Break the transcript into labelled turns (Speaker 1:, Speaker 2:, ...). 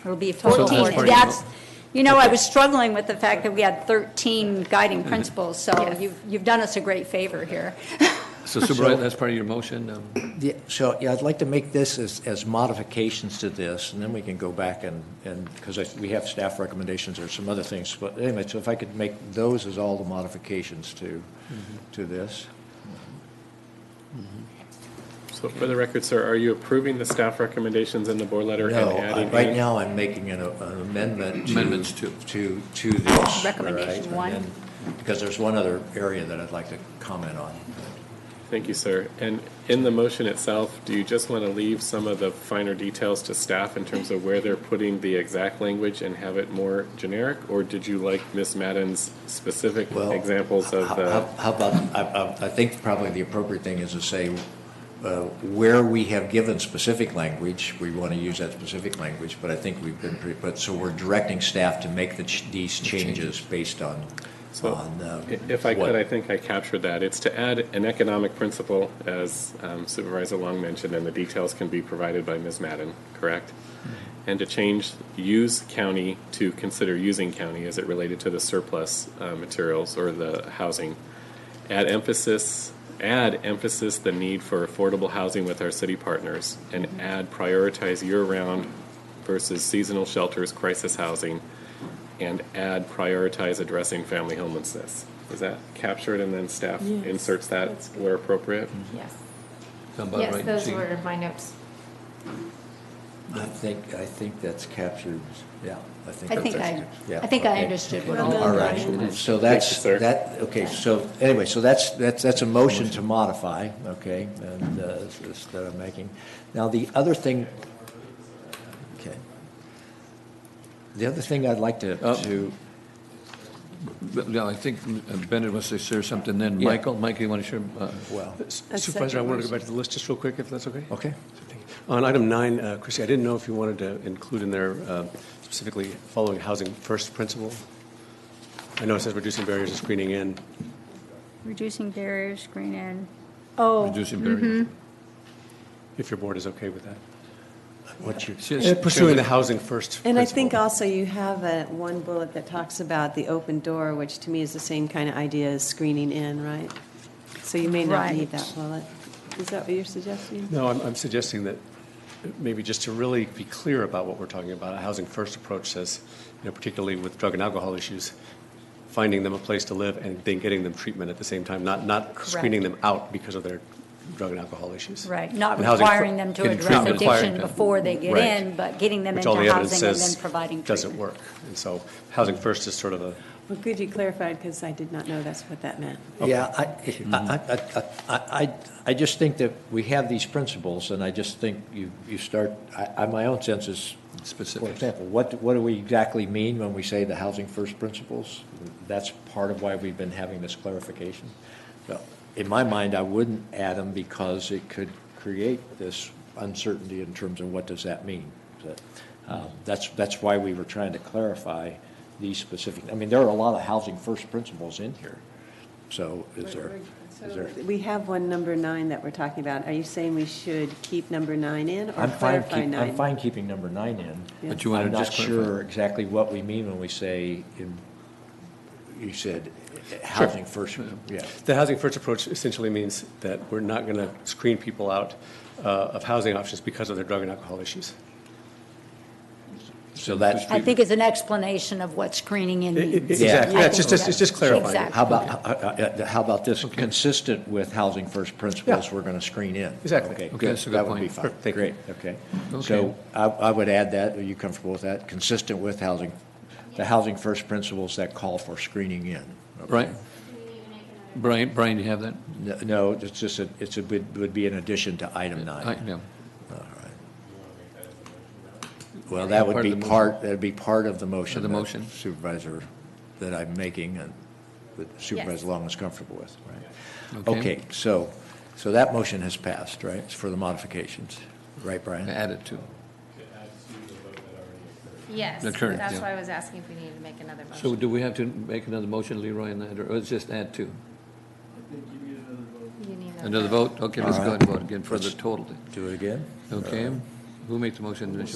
Speaker 1: It'll be
Speaker 2: So
Speaker 1: 14,
Speaker 2: that's
Speaker 1: and that's, you know, I was struggling with the fact that we had 13
Speaker 3: Mm-hmm.
Speaker 1: guiding principles, so
Speaker 2: Yes.
Speaker 1: you've, you've done us a great favor here.
Speaker 4: So Supervisor, that's part of your motion? um,
Speaker 5: Yeah, so, yeah, I'd like to make this as, as modifications to this, and then we can go back and, and, because I, we have staff recommendations or some other things, but anyway, so if I could make those as all the modifications to, to this.
Speaker 6: So for the record, sir, are you approving the staff recommendations in the board letter and
Speaker 5: No, I-
Speaker 6: adding?
Speaker 5: right
Speaker 6: any-
Speaker 5: now, I'm making an an amendment to.
Speaker 4: Amendments to.
Speaker 5: To, to this. all right?
Speaker 1: Recommendation
Speaker 5: And
Speaker 1: one.
Speaker 5: then- Because there's one other area that I'd like to comment on.
Speaker 6: Thank you, sir. And in the motion itself, do you just want to leave some of the finer details to staff in terms of where they're putting the exact language and have it more generic? Or did you like Ms. Madden's specific
Speaker 5: Well,
Speaker 6: examples of uh,
Speaker 5: how-
Speaker 6: the?
Speaker 5: How how about, I, I- I think probably the appropriate thing is to say, uh, where we have given specific language, we want to use that specific language, but I think we've been pretty, but, so we're directing staff to make the, ch- these changes based on,
Speaker 6: So,
Speaker 5: on. uh,
Speaker 6: i- If I
Speaker 5: what-
Speaker 6: could, I think I captured that. It's to add an economic principle, as um, Supervisor Long mentioned, and the details can be provided by Ms. Madden, correct? And to change use county to consider using county as it related to the surplus uh, materials or the housing. Add emphasis, add emphasis the need for affordable housing with our city partners, and add prioritize year-round versus seasonal shelters, crisis housing, and add prioritize addressing family homelessness. Is that captured and then staff
Speaker 2: Yes,
Speaker 6: inserts that
Speaker 2: that's good.
Speaker 6: where appropriate?
Speaker 2: Yes,
Speaker 4: sound about
Speaker 2: yes,
Speaker 4: right,
Speaker 2: those
Speaker 4: Jean?
Speaker 2: were my notes.
Speaker 5: I think, I think that's captured, yeah, I think.
Speaker 1: I think
Speaker 5: that's-
Speaker 1: I,
Speaker 5: yeah,
Speaker 1: I think I
Speaker 5: okay.
Speaker 1: understood what all.
Speaker 5: All right, so that's,
Speaker 6: sir.
Speaker 5: that, okay, so, anyway, so that's, that's, that's a motion to modify, okay, and, uh, this- this that I'm making. Now, the other thing, okay. The other thing I'd like to,
Speaker 4: Uh,
Speaker 5: to,
Speaker 4: But, Yeah, I think uh, Bennett wants to share something, then
Speaker 5: Yeah.
Speaker 4: Michael, Michael, you want to share? uh,
Speaker 5: well,
Speaker 3: Supervisor, I wanted to go back to the list just real quick, if that's okay?
Speaker 5: okay,
Speaker 3: On item nine, uh, Chrissy, I didn't know if you wanted to include in there uh, specifically following housing first principle. I know it says reducing barriers and screening in.
Speaker 1: Reducing barriers, screen in. Oh,
Speaker 4: Reducing barriers.
Speaker 2: mm-hmm.
Speaker 3: if your board is okay with that.
Speaker 5: what's your,
Speaker 4: She-
Speaker 3: Uh,
Speaker 4: she-
Speaker 3: Pursuing the housing first
Speaker 7: And I
Speaker 3: principle.
Speaker 7: think also you have a, one bullet that talks about the open door, which to me is the same kind of idea as screening in, right? So you may not need that
Speaker 1: Right.
Speaker 7: bullet. Is that what you're suggesting?
Speaker 3: No, I'm, I'm suggesting that maybe just to really be clear about what we're talking about, a housing first approach says, you know, particularly with drug and alcohol issues, finding them a place to live and then getting them treatment at the same time, not, not screening them out because of their drug and alcohol issues.
Speaker 1: right, not
Speaker 3: And housing fir-
Speaker 1: requiring them to
Speaker 4: getting
Speaker 1: address
Speaker 4: treatment.
Speaker 1: addiction
Speaker 4: Required.
Speaker 1: before they get
Speaker 3: Right.
Speaker 1: in, but getting them
Speaker 3: Which
Speaker 1: into
Speaker 3: all the evidence
Speaker 1: housing and then
Speaker 3: says
Speaker 1: providing
Speaker 3: doesn't
Speaker 1: treatment.
Speaker 3: work. And so housing first is sort of a,
Speaker 7: Well, good you clarified, because I did not know that's what that meant.
Speaker 5: yeah, I, I, I- I, I, I just think that we have these principles, and I just think you, you start, I, I, my own sense is, For
Speaker 4: Specific.
Speaker 5: example, what, what do we exactly mean when we say the housing first principles? That's part of why we've been having this clarification. So, in my mind, I wouldn't add them because it could create this uncertainty in terms of what does that mean? So, um, That's, that's why we were trying to clarify these specific, I mean, there are a lot of housing first principles in here. So is there, is there?
Speaker 7: We have one number nine that we're talking about. Are you saying we should keep number nine in or
Speaker 5: I'm fine,
Speaker 7: clarify
Speaker 5: keep- I'm
Speaker 7: nine?
Speaker 5: fine keeping number nine in.
Speaker 4: But you want to just
Speaker 5: I'm
Speaker 4: clarify.
Speaker 5: not sure exactly what we mean when we say, in- you said, eh, housing first, yeah.
Speaker 3: the housing first approach essentially means that we're not going to screen people out uh, of housing options because of their drug and alcohol issues.
Speaker 5: So that's,
Speaker 1: I think it's an explanation of what screening in
Speaker 3: I- I-
Speaker 1: means.
Speaker 3: Exactly,
Speaker 5: Yeah.
Speaker 3: yeah, it's just, it's just clarifying. it.
Speaker 1: Exactly.
Speaker 5: how about, uh, uh, uh, how about this, consistent with housing first principles, we're going to screen in?
Speaker 3: Exactly.
Speaker 5: Okay,
Speaker 3: Okay,
Speaker 5: good,
Speaker 4: that's a good
Speaker 5: that would
Speaker 4: point.
Speaker 5: be fine,
Speaker 3: Thank you.
Speaker 5: great, okay. So I, I would add that, are you comfortable with that? Consistent with housing, the housing first principles that call for screening in. okay?
Speaker 4: Right. Brian, Brian, do you have that?
Speaker 5: No- No, it's just, a- it's a, would would be an addition to item
Speaker 4: Uh, I-
Speaker 5: nine.
Speaker 4: no.
Speaker 5: Well, that would
Speaker 4: Part of
Speaker 5: be
Speaker 4: the motion.
Speaker 5: part, that'd be part of the motion.
Speaker 4: Of the
Speaker 5: that
Speaker 4: motion.
Speaker 5: Supervisor, that I'm making and that Supervisor Long is comfortable with, right?
Speaker 4: Okay.
Speaker 5: Okay, so, so that motion has passed, right? It's for the modifications, right, Brian?
Speaker 4: Add it to.
Speaker 2: Yes,
Speaker 4: The current, that's yeah.
Speaker 2: that's
Speaker 4: why
Speaker 2: why I was asking if we needed to make another motion.
Speaker 4: So do we have to make another motion, Leroy, on that, or it's just add to? Another vote? Okay, let's go ahead and vote again for the total.
Speaker 5: Do it again?
Speaker 4: Okay? Who made the motion initially?